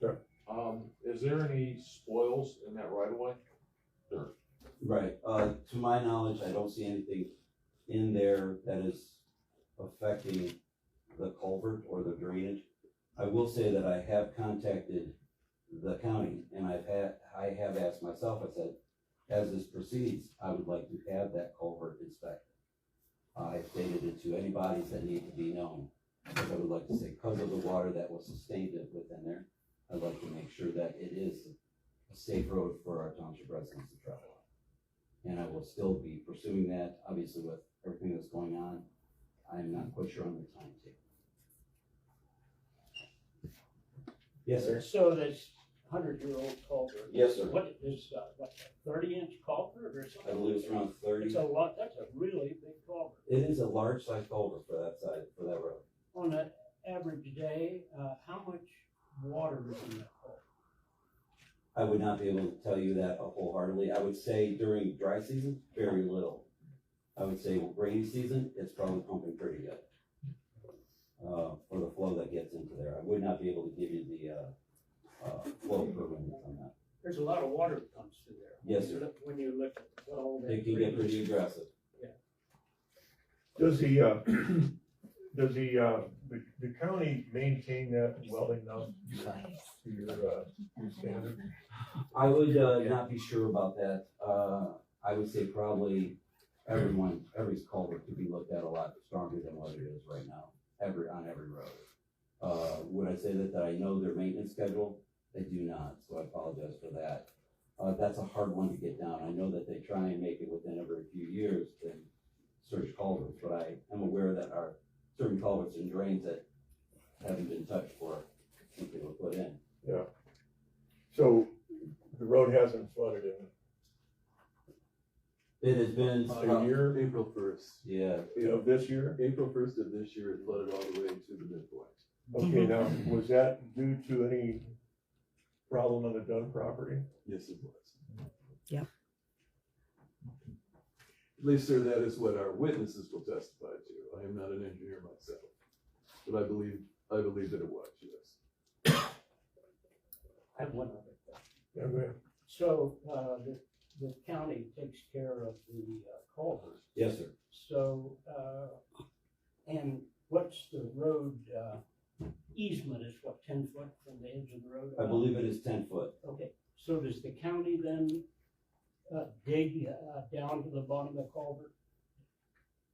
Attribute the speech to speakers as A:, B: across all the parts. A: Sure.
B: Um, is there any spoils in that right of way?
C: Right, uh, to my knowledge, I don't see anything in there that is affecting the culvert or the drainage. I will say that I have contacted the county and I've had, I have asked myself, I said, as this proceeds, I would like to have that culvert inspected. I stated it to any bodies that need to be known, because I would like to say, because of the water that was sustained within there, I'd like to make sure that it is a safe road for our township residents to travel on. And I will still be pursuing that, obviously with everything that's going on, I'm not quite sure on the timetable. Yes, sir.
D: So this hundred-year-old culvert.
C: Yes, sir.
D: What is, uh, what, thirty-inch culvert or something?
C: I believe it's around
D: It's
C: thirty.
D: a lot, that's a really big culvert.
C: It is a large sized culvert for that side, for that road.
D: On an average day, uh, how much water is in that culvert?
C: I would not be able to tell you that wholeheartedly. I would say during dry season, very little. I would say rainy season, it's probably pumping pretty good. Uh, for the flow that gets into there. I would not be able to give you the, uh, uh, flow per minute on that.
D: There's a lot of water that comes through there.
C: Yes, sir.
D: When you look at the whole.
C: It can get pretty aggressive.
A: Does the, uh, does the, uh, the, the county maintain that well enough to your, uh, your standard?
C: I would uh, not be sure about that. Uh, I would say probably everyone, every culvert could be looked at a lot stronger than what it is right now, every, on every road. Uh, would I say that, that I know their maintenance schedule? They do not, so I apologize for that. Uh, that's a hard one to get down. I know that they try and make it within every few years to search culverts, but I am aware that our certain culverts and drains that haven't been touched for, since they were put in.
A: So the road hasn't flooded in,
C: It has been.
E: A year, Uh, April first.
C: Yeah,
A: you know, this year?
E: April first of this year, it flooded all the way to the midpoint.
A: Okay, now, was that due to any problem on the Dunn property?
E: Yes, it was.
F: Yep.
E: At least, sir, that is what our witnesses will testify to. I am not an engineer myself. But I believe, I believe that it was, yes.
D: I have one other question.
A: Yeah, go ahead.
D: So, uh, the, the county takes care of the uh, culvert.
C: yes, sir.
D: So, uh, and what's the road, uh, easement is what, ten foot from the edge of the road?
C: I believe it is ten foot.
D: Okay, so does the county then, uh, dig, uh, down to the bottom of the culvert?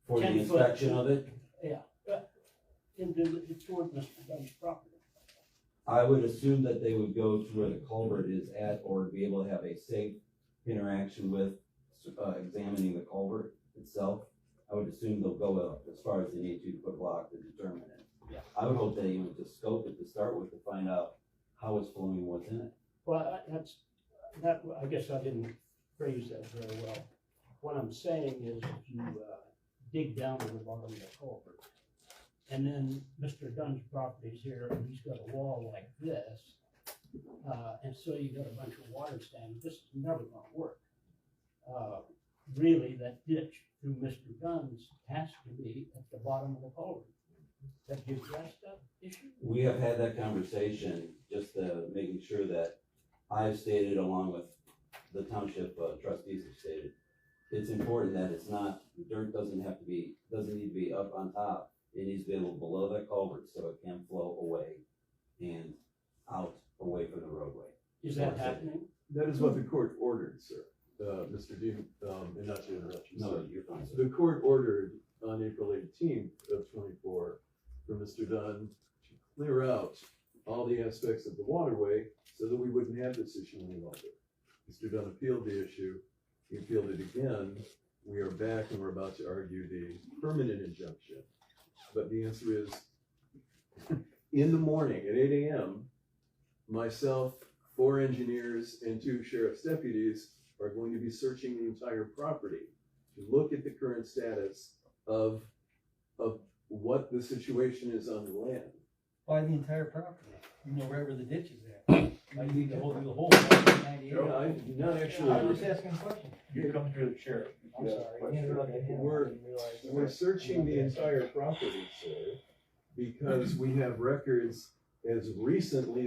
C: For the
D: 10 foot.
C: inspection of it,
D: Into the, toward Mr. Dunn's property?
C: I would assume that they would go to where the culvert is at or be able to have a safe interaction with, uh, examining the culvert itself. I would assume they'll go up as far as they need to to put block to determine it.
D: Yeah.
C: I would hope they even just scope it to start with to find out how it's flowing, and what's in it.
D: Well, I- that's, that, I guess I didn't phrase that very well. What I'm saying is if you, uh, dig down to the bottom of the culvert, and then Mr. Dunn's property's here, and he's got a wall like this, uh, and so you got a bunch of water standing, this is never gonna work. Uh, really, that ditch through Mr. Dunn's has to be at the bottom of the culvert. Have you addressed that issue?
C: We have had that conversation, just uh, making sure that I've stated along with the township uh, trustees have stated, it's important that it's not, dirt doesn't have to be, doesn't need to be up on top. It needs to be able below that culvert so it can flow away and out away from the roadway.
D: Is that happening?
E: That is what the court ordered, sir. Uh, Mr. Dean, um, and not to interrupt you, sir.
C: No, you're fine, sir.
E: The court ordered on April eighteenth of twenty-four for Mr. Dunn to clear out all the aspects of the waterway so that we wouldn't have this issue any longer. Mr. Dunn appealed the issue, he appealed it again, we are back and we're about to argue the permanent injunction. But the answer is, in the morning at eight AM, myself, four engineers, and two sheriff's deputies are going to be searching the entire property to look at the current status of, of what the situation is on the land.
G: Buy the entire property, you know, wherever the ditch is at. I need the whole, the whole property, ninety-eight.
E: No, I, not
G: I'm just
E: actually,
G: asking a question.
A: You come through the chair.
G: I'm sorry. I interrupted him. I
E: We're-
G: didn't realize that.
E: we're searching the entire property, sir, because we have records as recently